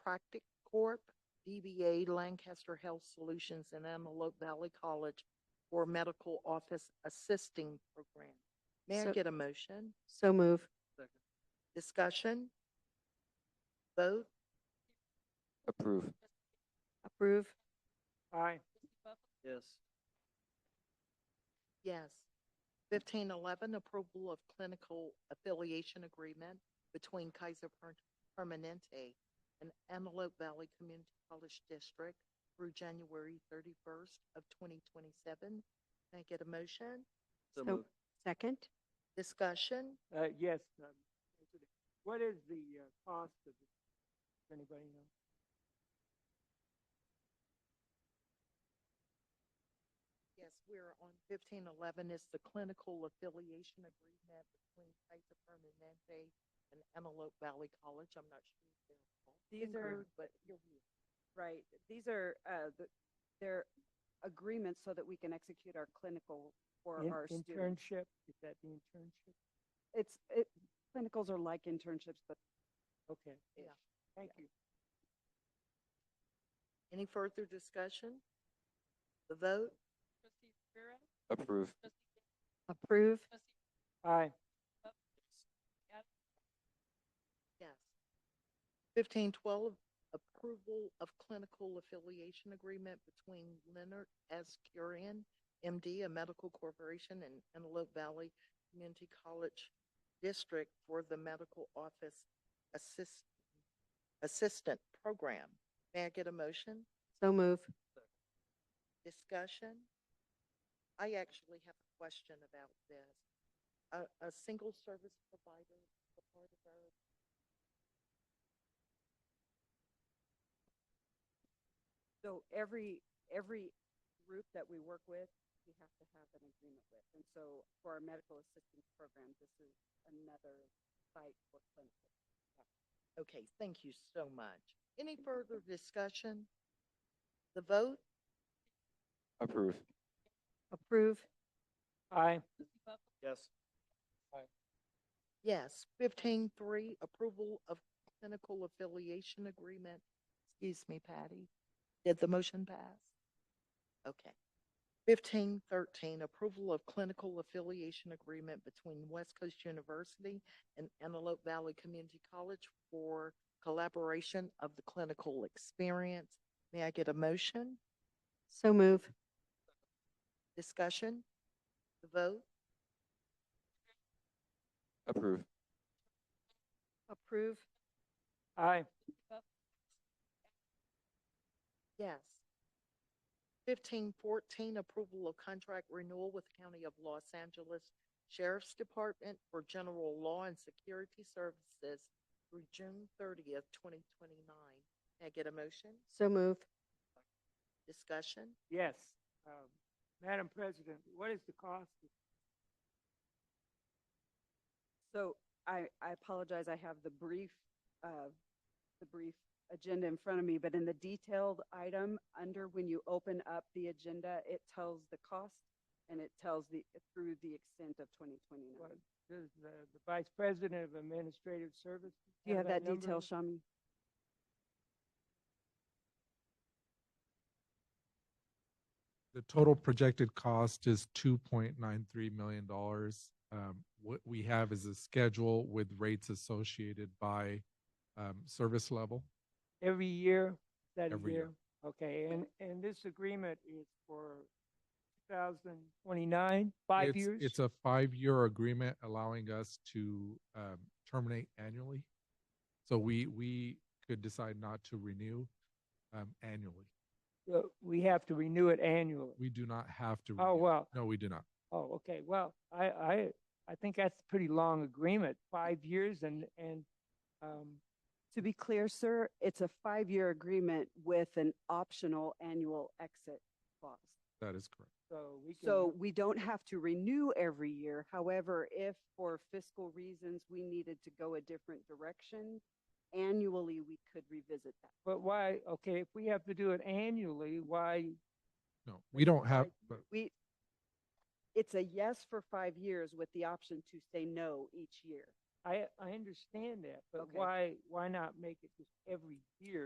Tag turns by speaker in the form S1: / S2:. S1: Chiropractic Corp., DBA Lancaster Health Solutions and Antelope Valley College for Medical Office Assisting Program. May I
S2: So-
S1: get a motion?
S2: So move.
S1: Discussion? Vote?
S3: Approve.
S2: Approve.
S4: Aye. Yes.
S1: Yes. Fifteen eleven, approval of clinical affiliation agreement between Kaiser Per- Permanente and Antelope Valley Community College District through January thirty-first of twenty twenty-seven. Can I get a motion?
S2: So-
S4: So moved.
S2: Second.
S1: Discussion?
S5: Uh, yes. um, What is the uh, cost of this? Does Anybody know?
S1: Yes, we're on fifteen eleven is the clinical affiliation agreement between Kaiser Permanente and Antelope Valley College. I'm not sure. if they're all
S6: These
S1: included,
S6: are-
S1: But you're here.
S6: Right. These are, uh, the- they're agreements so that we can execute our clinical for
S5: In-
S6: our students.
S5: Internship, is that the internship?
S6: It's, it, clinicals are like internships, but
S5: Okay.
S1: Yeah.
S5: Thank you.
S1: Any further discussion? The vote?
S3: Approve.
S2: Approve.
S5: Aye.
S1: Yes. Fifteen twelve, approval of clinical affiliation agreement between Leonard S. Curian, MD, a medical corporation and Antelope Valley Community College District for the Medical Office Assist, Assistant Program. May I get a motion?
S2: So move.
S1: Discussion? I actually have a question about this. A, a single service provider is a part of our
S6: so every, every group that we work with, we have to have an agreement with. And so for our medical assistance program, this is another site for clinical.
S1: Okay, thank you so much. Any further discussion? The vote?
S3: Approve.
S2: Approve.
S5: Aye.
S4: Yes.
S1: Yes. Fifteen three, approval of clinical affiliation agreement. Excuse me, Patty. Did the motion pass? Okay. Fifteen thirteen, approval of clinical affiliation agreement between West Coast University and Antelope Valley Community College for collaboration of the clinical experience. May I get a motion?
S2: So move.
S1: Discussion? The vote?
S3: Approve.
S2: Approve.
S5: Aye.
S1: Yes. Fifteen fourteen, approval of contract renewal with County of Los Angeles Sheriff's Department for general law and security services through June thirtieth, twenty twenty-nine. May I get a motion?
S2: So move.
S1: Discussion?
S5: Yes. Um, Madam President, what is the cost? of-
S6: So I, I apologize, I have the brief, uh, the brief agenda in front of me, but in the detailed item, under when you open up the agenda, it tells the cost and it tells the, through the extent of twenty
S5: what-
S6: twenty-nine.
S5: Does the, the Vice President of Administrative Services?
S6: Do you have that detail,
S5: number?
S6: Shami?
S7: The total projected cost is two point nine three million dollars. Um, what we have is a schedule with rates associated by um, service level.
S5: Every year? Is that a
S7: Every year.
S5: year? Okay, and, and this agreement is for two thousand twenty-nine, five
S7: It's-
S5: years?
S7: It's a five-year agreement allowing us to um, terminate annually. So we we could decide not to renew um, annually.
S5: So Uh, We have to renew it annually.
S7: We do not have to.
S5: Oh,
S7: renew.
S5: well,
S7: No, we do not.
S5: Oh, okay. Well, I, I, I think that's a pretty long agreement, five years and, and, um,
S6: To be clear, sir, it's a five-year agreement with an optional annual exit clause.
S7: That is correct.
S5: so we can.
S6: So we don't have to renew every year. However, if for fiscal reasons we needed to go a different direction, annually, we could revisit that.
S5: But why, okay, if we have to do it annually, why,
S7: No, we don't
S5: I-
S7: have. but-
S6: We, it's a yes for five years with the option to say no each year.
S5: I, I understand that, but
S6: Okay.
S5: why, why not make it just every year?